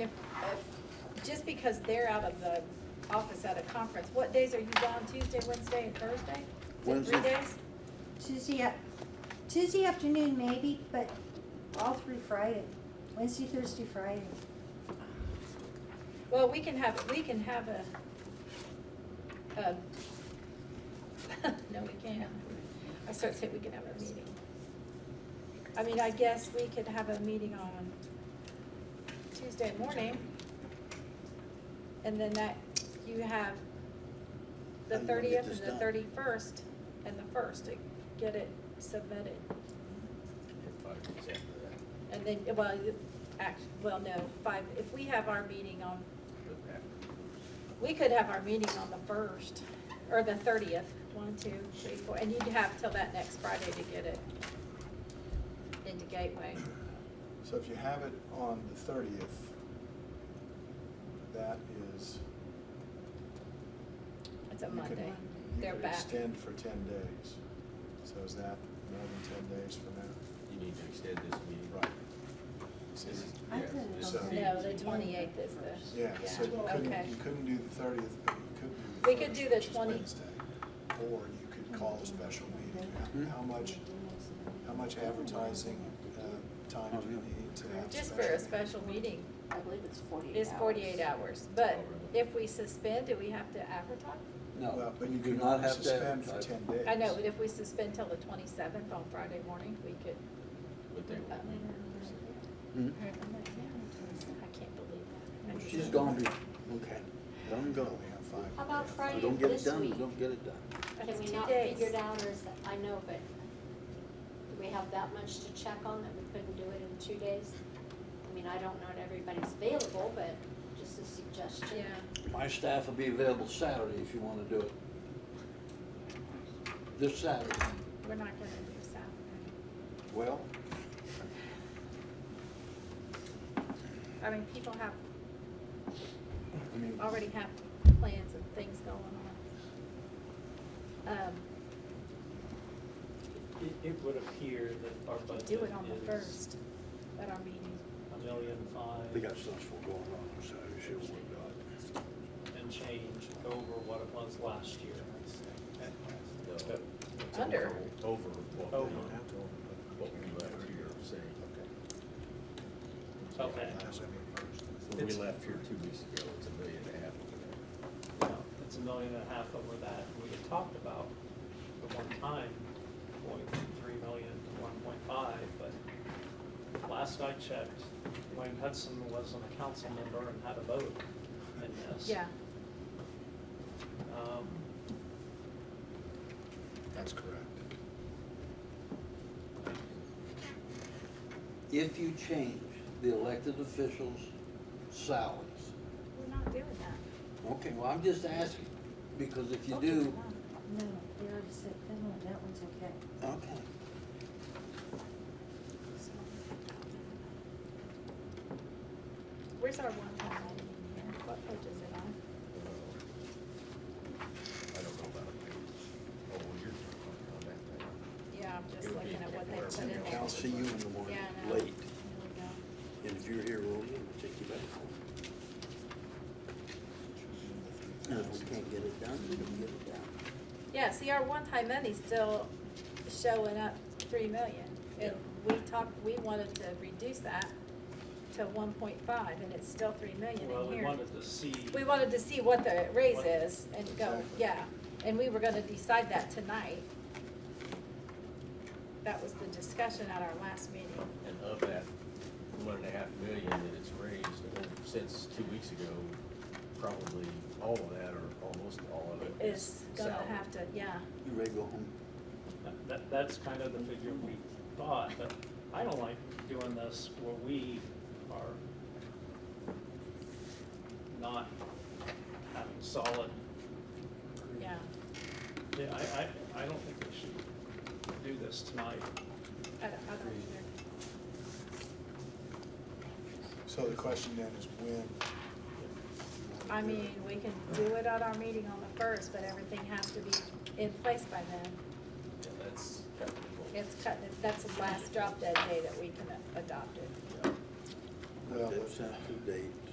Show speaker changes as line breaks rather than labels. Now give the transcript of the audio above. If, if, just because they're out of the office at a conference, what days are you gone, Tuesday, Wednesday, and Thursday? Is it three
Wednesday.
days?
Tuesday, up- Tuesday afternoon maybe, but all through Friday, Wednesday, Thursday, Friday.
Well, we can have, we can have a, a, no, we can't. I started saying we can have a meeting. I mean, I guess we could have a meeting on Tuesday morning. And then that, you have the
How do you wanna get
thirtieth and
this
the
done?
thirty-first and the first to get it submitted. And then, well, you- act, well, no, five, if we have our meeting on we could have our meeting on the first, or the thirtieth, one, two, three, four, and you'd have till that next Friday to get it into Gateway.
So if you have it on the thirtieth, that is.
It's a
you could-
Monday,
you
they're
could
back.
Extend for ten days. So is that more than ten days from now?
You need to extend this meeting.
Right.
This
So-
is-
I
yes,
couldn't
this
help
is
it.
the-
No, the twenty-eighth is the,
Yeah, so you
yeah, okay.
couldn't, you couldn't do the thirtieth, but you could do the
We could do the
1st, which is
20.
Wednesday. Or you could call a special meeting.
Hmm?
How- How much, how much advertising, uh,
Oh,
time do you need
Mm-hmm.
to have?
Just for a
meeting?
special meeting,
I believe it's forty-eight hours.
it's forty-eight hours, but
Oh, really?
if we suspend, do we have to advertise?
Well,
No,
but
you do
could
not have to
Suspend for
advertise.
ten days.
I know, but if we suspend till the twenty-seventh on Friday morning, we could, Uh,
But they won't be here.
Hmm?
Mm-hmm.
I can't believe that. I just-
She's gone, okay. I'm gone.
We have five.
How about Friday
Don't get it
this
done,
week?
don't get it done.
Can
That's
we
two
not
days.
figure it out, or is, that- I know, but do we have that much to check on that we couldn't do it in two days? I mean, I don't know if everybody's available, but just a suggestion.
Yeah,
My staff will be available Saturday if you wanna do it. This Saturday.
we're not gonna do Saturday.
Well,
I mean, people have,
I mean,
already have plans and things going on. Um,
It, it would appear that our
we could
budget
do it on the
is
first, at our meeting.
a million
they
five
got stuff going on on Saturday, she'll work on
and change over what it was last year.
No, it's
Under.
Over over what
Over.
we, what we left here, saying,
Okay,
Last meeting first.
when we
It's-
left here two weeks ago, it's a million and a half over there.
now, it's a million and a half over that. We had talked about the one time, point three million to one point five, but last I checked, Wayne Hudson wasn't a council member and had a vote in this.
Yeah,
Um,
That's correct.
it. If you change the elected officials' salaries,
we're not doing that.
okay, well, I'm just asking, because if you
Okay,
do,
come on.
No, we already said that one, that one's okay.
okay.
Where's our one time item in here? What page is it on?
Uh, I don't know about it. Oh, well, you're on that thing.
Yeah, I'm
It
just
would be
looking at what they
where
put in
everything
there.
I'll see you in the morning,
Yeah, I know.
late,
There we go.
and if you're here early, we'll take you back home. And if we can't get it done, we don't get it done.
Yeah, see, our one-time money's still showing up three million. And we talked, we wanted to reduce that to one point five, and it's still three million
well,
in
we
here.
wanted to see.
We wanted to see what the raise
What-
is and go,
Exactly.
yeah, and we were gonna decide that tonight. That was the discussion at our last meeting.
And of that one and a half million that it's raised uh, since two weeks ago, probably all of that or almost all of it
Is
is
gonna
salary.
have to, yeah,
You ready to go home?
That- That, that's kind of the figure we thought, but I don't like doing this where we are not having solid,
yeah.
yeah, I, I, I don't think we should do this tonight.
I don't, I don't either.
So the question then is when? you wanna
I
do it.
mean, we can do it at our meeting on the first, but everything has to be in place by then.
Yeah, that's.
It's cut, that's the last drop dead day that we can adopt it.
Yeah.
Well,
That's uh,
but
up to date.